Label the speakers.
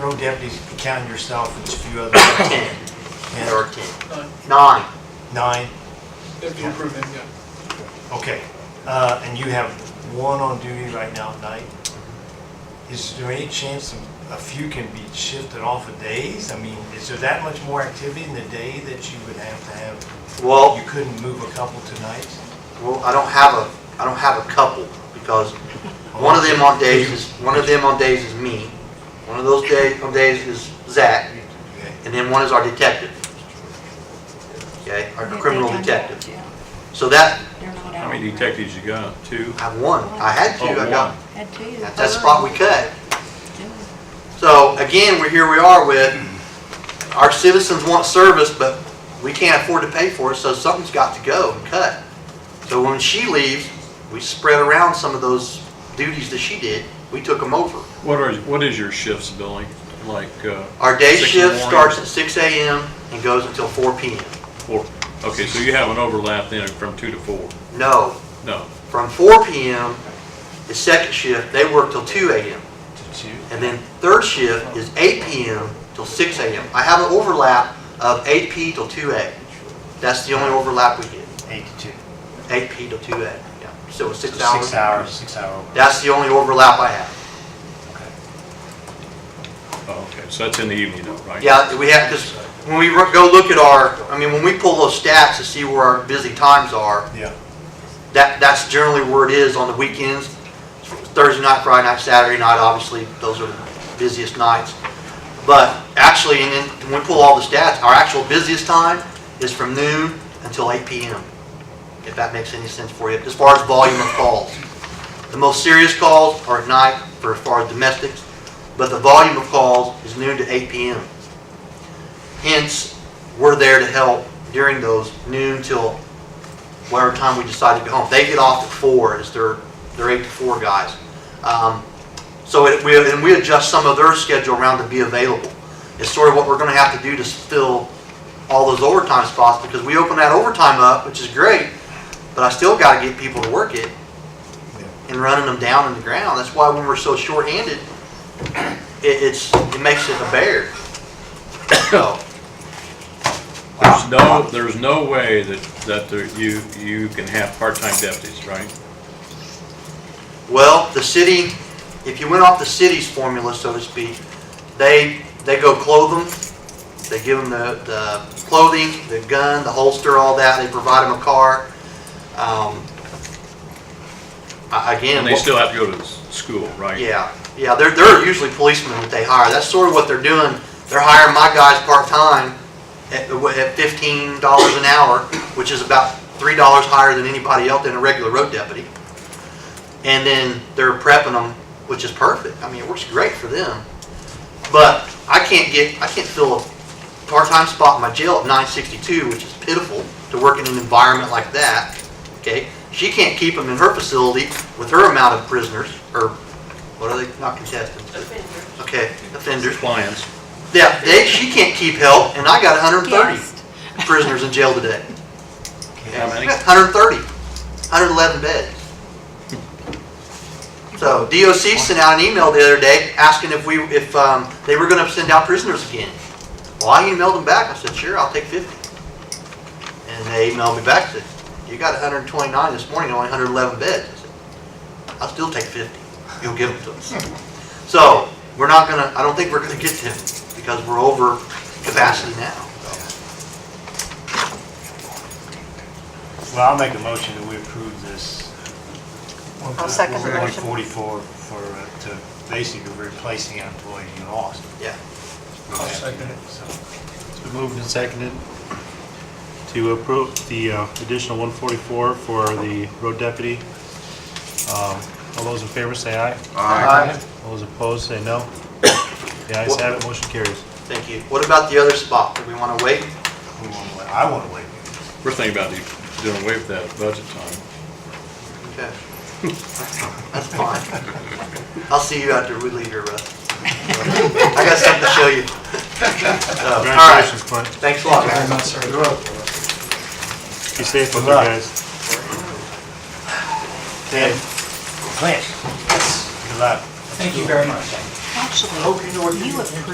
Speaker 1: road deputies, counting yourself, and a few other, and
Speaker 2: thirteen.
Speaker 3: Nine,
Speaker 2: Nine,
Speaker 1: nine,
Speaker 3: if you approve them, yeah.
Speaker 1: okay. Uh, and you have one on duty right now at night. Is there any chance a few can be shifted off of days? I mean, is there that much more activity in the day that you would have to have?
Speaker 2: well,
Speaker 1: You couldn't move a couple tonight?
Speaker 2: well, I don't have a, I don't have a couple, because one of them on days is, one of them on days is me, one of those days, on days is Zach,
Speaker 1: Okay.
Speaker 2: and then one is our detective. Okay, our criminal detective. So that,
Speaker 4: How many detectives you got? Two?
Speaker 2: I have one, I had two, I got,
Speaker 5: Had two.
Speaker 2: that's that spot we cut. So again, we're, here we are with, our citizens want service, but we can't afford to pay for it, so something's got to go and cut. So when she leaves, we spread around some of those duties that she did, we took them over.
Speaker 4: What are, what is your shifts, Billy? Like, uh,
Speaker 2: Our day
Speaker 4: Six in the
Speaker 2: shift
Speaker 4: morning.
Speaker 2: starts at six AM and goes until four PM.
Speaker 4: four? Okay, so you have an overlap then from two to four?
Speaker 2: No,
Speaker 4: No.
Speaker 2: from four PM, the second shift, they work till two AM.
Speaker 1: To two?
Speaker 2: And then third shift is eight PM till six AM. I have an overlap of eight P till two A. That's the only overlap we get.
Speaker 6: Eight to two.
Speaker 2: eight P to two A, yeah, so it's
Speaker 6: So
Speaker 2: six hours.
Speaker 6: Six hours, six hour.
Speaker 2: That's the only overlap I have.
Speaker 4: Oh, okay, so that's in the evening though, right?
Speaker 2: Yeah, we have, because when we ro- go look at our, I mean, when we pull those stats to see where our busy times are,
Speaker 1: Yeah.
Speaker 2: that, that's generally where it is on the weekends. Thursday night, Friday night, Saturday night, obviously, those are the busiest nights. But actually, and then when we pull all the stats, our actual busiest time is from noon until eight PM, if that makes any sense for you, as far as volume of calls. The most serious calls are at night for as far as domestics, but the volume of calls is noon to 8 PM. Hence, we're there to help during those noon till whatever time we decide to go home. They get off at 4, is their, their 8 to 4 guys. Um, So it, we, and we adjust some of their schedule around to be available. It's sort of what we're gonna have to do to fill all those overtime spots, because we open that overtime up, which is great, but I still gotta get people to work it and running them down in the ground. That's why when we're so shorthanded, it, it's, it makes it a bear. So,
Speaker 4: There's no, there's no way that, that there- you, you can have part-time deputies, right?
Speaker 2: well, the city, if you went off the city's formula, so to speak, they, they go clothe them, they give them the, the clothing, the gun, the holster, all that, they provide them a car. Um, I- Again.
Speaker 4: And they
Speaker 2: what-
Speaker 4: still have to go to s- school, right?
Speaker 2: Yeah, yeah, they're, they're usually policemen that they hire. That's sort of what they're doing. They're hiring my guys part-time at, at fifteen dollars an hour, which is about three dollars higher than anybody else than a regular road deputy. And then they're prepping them, which is perfect. I mean, it works great for them. But I can't get, I can't fill a part-time spot in my jail at nine sixty-two, which is pitiful to work in an environment like that, okay? She can't keep them in her facility with her amount of prisoners, or what are they, not contestants? Okay, offenders.
Speaker 4: Clients.
Speaker 2: Yeah, they, she can't keep help, and I got hundred and thirty prisoners in jail today.
Speaker 4: How many?
Speaker 2: Hundred and thirty, hundred and eleven beds. So DOC sent out an email the other day asking if we, if, um, they were gonna send out prisoners again. Well, I emailed them back, I said, sure, I'll take fifty. And they emailed me back, said, you got hundred and twenty-nine this morning, only hundred and eleven beds. I said, I'll still take fifty, you'll give them to us. So, we're not gonna, I don't think we're gonna get them, because we're over capacity now.
Speaker 6: Well, I'll make a motion that we approve this.
Speaker 5: I'll second the
Speaker 6: One
Speaker 5: motion.
Speaker 6: forty-four for, uh, to basically replacing an employee you lost.
Speaker 2: Yeah.
Speaker 3: I'll second it.
Speaker 7: Been moved and seconded to approve the uh, additional 144 for the road deputy. Um, All those in favor say aye. All those opposed say no. The ayes have it, motion carries.
Speaker 2: Thank you. What about the other spot? Do we want to wait?
Speaker 6: We wanna wait- I want to wait.
Speaker 4: We're thinking about doing away with that budget time.
Speaker 2: Okay. That's fine. I'll see you after we leave here, Russ. I got something to show you. So, All right.
Speaker 7: Congratulations, Clint.
Speaker 2: Thanks a lot, man.
Speaker 7: Be safe with you guys.
Speaker 6: Dan,
Speaker 1: Clint?
Speaker 6: good luck.
Speaker 5: Actually, you approved